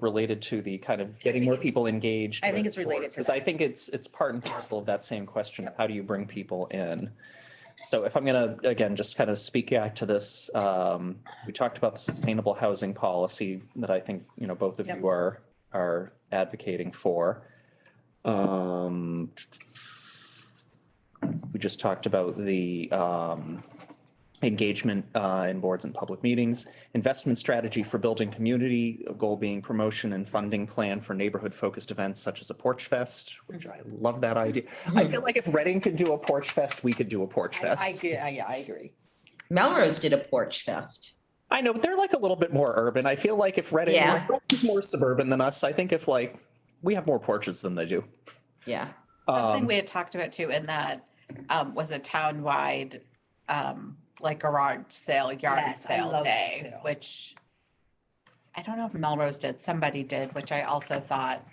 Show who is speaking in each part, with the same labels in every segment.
Speaker 1: related to the kind of getting more people engaged?
Speaker 2: I think it's related to
Speaker 1: Because
Speaker 2: that.
Speaker 1: I think it's, it's part and parcel of that same question. of How do you bring people in? So if I'm gonna, again, just kind of speak back to this, um, we talked about the sustainable housing policy that I think, you know, both of
Speaker 2: Yep.
Speaker 1: you are, are advocating for. Um, we just talked about the, um, engagement, uh, in boards and public meetings, investment strategy for building community, a goal being promotion and funding plan for neighborhood focused events such as a porch fest, which I love that idea. I feel like if Reading could do a porch fest, we could do a porch
Speaker 2: I, I,
Speaker 1: fest.
Speaker 2: agree. I- yeah, I agree.
Speaker 3: Melrose did a porch fest.
Speaker 1: I know, but they're like a little bit more urban. I feel like if Reading
Speaker 3: Yeah.
Speaker 1: like, is more suburban than us, I think if like, we have more porches than they do. Um,
Speaker 3: Yeah.
Speaker 4: Um,
Speaker 5: Something we had talked about too in that um, was a town-wide, um, like garage sale, yard
Speaker 2: Yes, I
Speaker 5: sale
Speaker 2: love that
Speaker 5: day,
Speaker 2: too.
Speaker 5: which I don't know if Melrose did, somebody did, which I also thought,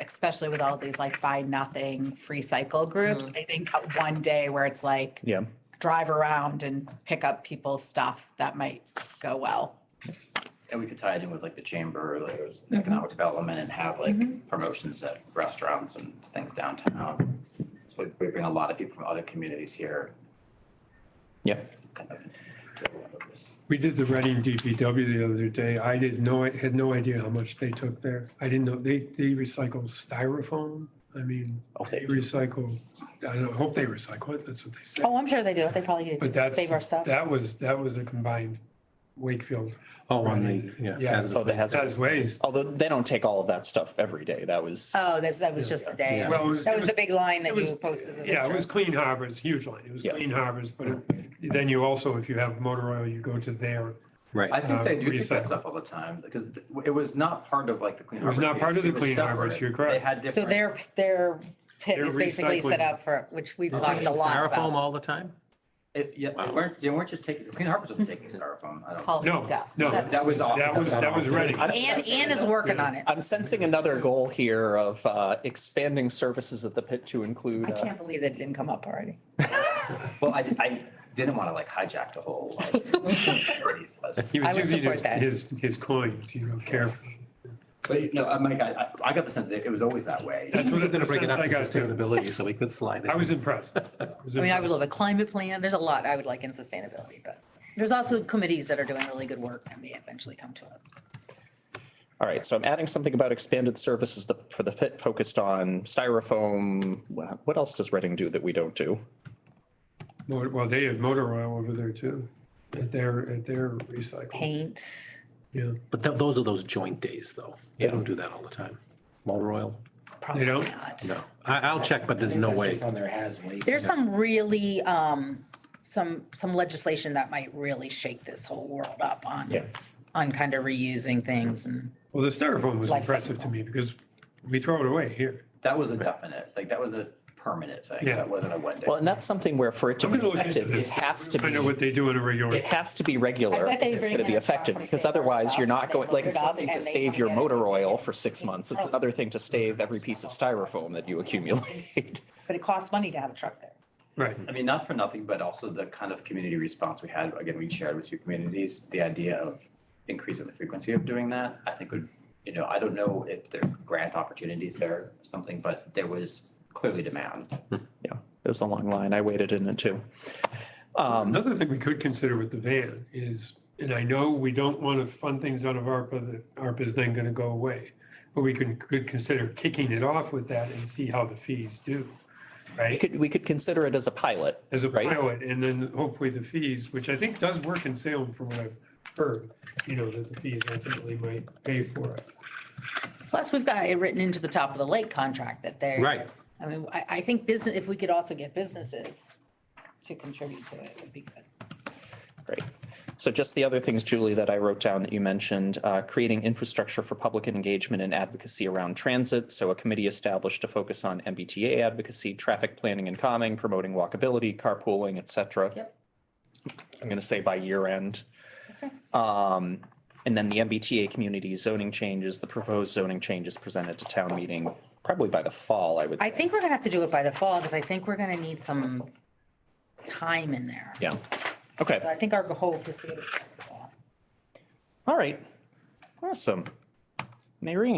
Speaker 5: especially with all these like buy nothing, free cycle groups,
Speaker 2: Mm-hmm.
Speaker 5: I think uh, one day where it's like
Speaker 1: Yeah.
Speaker 5: drive around and pick up people's stuff, that might go well.
Speaker 6: And we could tie it in with like the chamber, like there's economic development and have like promotions at restaurants and things downtown. So we- we bring a lot of people from other communities here.
Speaker 1: Yeah.
Speaker 6: kind of to a lot of this.
Speaker 4: We did the Reading DPW the other day. I didn't know, I had no idea how much they took there. I didn't know, they, they recycle styrofoam. I mean,
Speaker 1: Oh,
Speaker 4: they recycle, I don't, hope they recycle it, that's what they say.
Speaker 2: Oh, I'm sure they do. They probably
Speaker 4: But
Speaker 2: need to
Speaker 4: that's,
Speaker 2: save our stuff.
Speaker 4: that was, that was a combined Wakefield
Speaker 7: Oh, on the,
Speaker 4: Yeah.
Speaker 7: yeah. as
Speaker 1: Oh,
Speaker 7: a-
Speaker 1: the hazard.
Speaker 4: as waste.
Speaker 1: Although they don't take all of that stuff every day. That was,
Speaker 2: Oh, that, that was just the day.
Speaker 4: Well, it was,
Speaker 2: That was the
Speaker 4: it
Speaker 2: big line that
Speaker 4: it was-
Speaker 2: you posted. the
Speaker 4: was- yeah, it
Speaker 2: picture.
Speaker 4: was Clean Harbors, huge line. It was
Speaker 1: Yeah.
Speaker 4: Clean Harbors, but it- then you also, if you have motor oil, you go to there.
Speaker 6: I
Speaker 7: Right.
Speaker 6: think they
Speaker 4: Uh,
Speaker 6: do pick that
Speaker 4: recycle.
Speaker 6: stuff all the time because th- it was not part of like the Clean
Speaker 4: It was
Speaker 6: Harbors.
Speaker 4: not part
Speaker 6: days.
Speaker 4: of the
Speaker 6: It was
Speaker 4: Clean Harbors,
Speaker 6: separate.
Speaker 4: you're correct.
Speaker 6: They had
Speaker 2: So
Speaker 6: different.
Speaker 2: their, their pit
Speaker 4: Their
Speaker 2: is basically set
Speaker 4: recycling-
Speaker 2: up for, which we've
Speaker 4: They're
Speaker 2: talked
Speaker 6: taking
Speaker 2: a lot
Speaker 7: Styrofoam
Speaker 2: about.
Speaker 7: all the time?
Speaker 6: it- Yeah, they
Speaker 7: Wow.
Speaker 6: weren't, they weren't just taking, Clean Harbors wasn't taking styrofoam. I don't.
Speaker 5: Paul,
Speaker 4: No,
Speaker 5: yeah,
Speaker 4: no.
Speaker 5: that's-
Speaker 6: That was off.
Speaker 4: That was, that was Reading.
Speaker 1: I'm
Speaker 2: And,
Speaker 1: sensing-
Speaker 2: and is working on it.
Speaker 1: I'm sensing another goal here of, uh, expanding services at the pit to include.
Speaker 2: I
Speaker 1: uh,
Speaker 2: can't believe that it didn't come up already.
Speaker 6: Well, I, I didn't want to like hijack the whole like. priorities list.
Speaker 4: He
Speaker 2: I
Speaker 4: was
Speaker 2: would
Speaker 4: using
Speaker 2: support
Speaker 4: his,
Speaker 2: that.
Speaker 4: his, his coins, you know, carefully.
Speaker 6: But no, uh, Mike, I, I- I got the sense that it was always that way.
Speaker 4: That's what
Speaker 7: We're gonna break it up
Speaker 4: I
Speaker 7: in
Speaker 4: got too.
Speaker 7: sustainability, so we could slide it.
Speaker 4: I was impressed.
Speaker 2: I mean, I would love a climate plan. There's a lot I would like in sustainability, but there's also committees that are doing really good work and they eventually come to us.
Speaker 1: All right, so I'm adding something about expanded services the- for the pit focused on styrofoam. Wha- What else does Reading do that we don't do?
Speaker 4: Motor- Well, they had motor oil over there too, at their, at their recycle.
Speaker 2: Paint.
Speaker 4: Yeah,
Speaker 7: But tho- those are those joint days, though. They don't do that all the time. Motor oil?
Speaker 4: they don't.
Speaker 7: No. I, I'll check, but there's no way.
Speaker 8: On there has weight.
Speaker 2: There's some really, um, some, some legislation that might really shake this whole world up on,
Speaker 1: Yeah.
Speaker 2: on kind of reusing things and.
Speaker 4: Well, the styrofoam was
Speaker 2: Like
Speaker 4: impressive to me because we throw it away here.
Speaker 6: That was a definite, like that was a permanent thing.
Speaker 4: Yeah.
Speaker 6: That wasn't a one day.
Speaker 1: Well, and that's something where for it to
Speaker 4: I'm
Speaker 1: be
Speaker 4: gonna look into
Speaker 1: effective, it
Speaker 4: this.
Speaker 1: has to
Speaker 4: Find out
Speaker 1: be,
Speaker 4: what they do in a regular.
Speaker 1: it has to be regular.
Speaker 2: I bet
Speaker 1: if
Speaker 2: they
Speaker 1: It's
Speaker 2: bring
Speaker 1: going to
Speaker 2: in
Speaker 1: be
Speaker 2: a truck
Speaker 1: effective
Speaker 2: from
Speaker 1: because
Speaker 2: Save Our
Speaker 1: otherwise you're
Speaker 2: Stuff
Speaker 1: not
Speaker 2: and
Speaker 1: going,
Speaker 2: they
Speaker 1: like
Speaker 2: load
Speaker 1: it's
Speaker 2: it up
Speaker 1: one thing to
Speaker 2: and they
Speaker 1: save
Speaker 2: come
Speaker 1: your
Speaker 2: get it.
Speaker 1: motor oil for six months. It's another thing to save every piece of styrofoam that you accumulate.
Speaker 2: But it costs money to have a truck there.
Speaker 4: Right.
Speaker 6: I mean, not for nothing, but also the kind of community response we had, again, we shared with two communities, the idea of increasing the frequency of doing that, I think would, you know, I don't know if there's grant opportunities there or something, but there was clearly demand.
Speaker 1: Yeah, it was a long line. I waited in it too.
Speaker 2: um,
Speaker 4: Another thing we could consider with the van is, and I know we don't want to fund things out of ARPA, that ARPA is then going to go away. But we could, could consider kicking it off with that and see how the fees do,
Speaker 1: We
Speaker 4: right?
Speaker 1: could, we could consider it as a pilot.
Speaker 4: As a
Speaker 1: right?
Speaker 4: pilot, and then hopefully the fees, which I think does work in Salem from what I've heard, you know, that the fees ultimately might pay for it.
Speaker 2: Plus, we've got it written into the top of the lake contract that they're.
Speaker 7: Right.
Speaker 2: I mean, I, I think business, if we could also get businesses to contribute to it, would be good.
Speaker 1: Great. So just the other things, Julie, that I wrote down that you mentioned, uh, creating infrastructure for public engagement and advocacy around transit. So a committee established to focus on MBTA advocacy, traffic planning and calming, promoting walkability, carpooling, et cetera.
Speaker 2: Yep.
Speaker 1: I'm gonna say by year end. Um, and then the MBTA community zoning changes, the proposed zoning changes presented to town meeting, probably by the fall, I would.
Speaker 2: I think we're gonna have to do it by the fall, because I think we're gonna need some time in there.
Speaker 1: Yeah. Okay.
Speaker 2: So I think our hope is to get it by the fall.
Speaker 1: All right. Awesome. Maureen?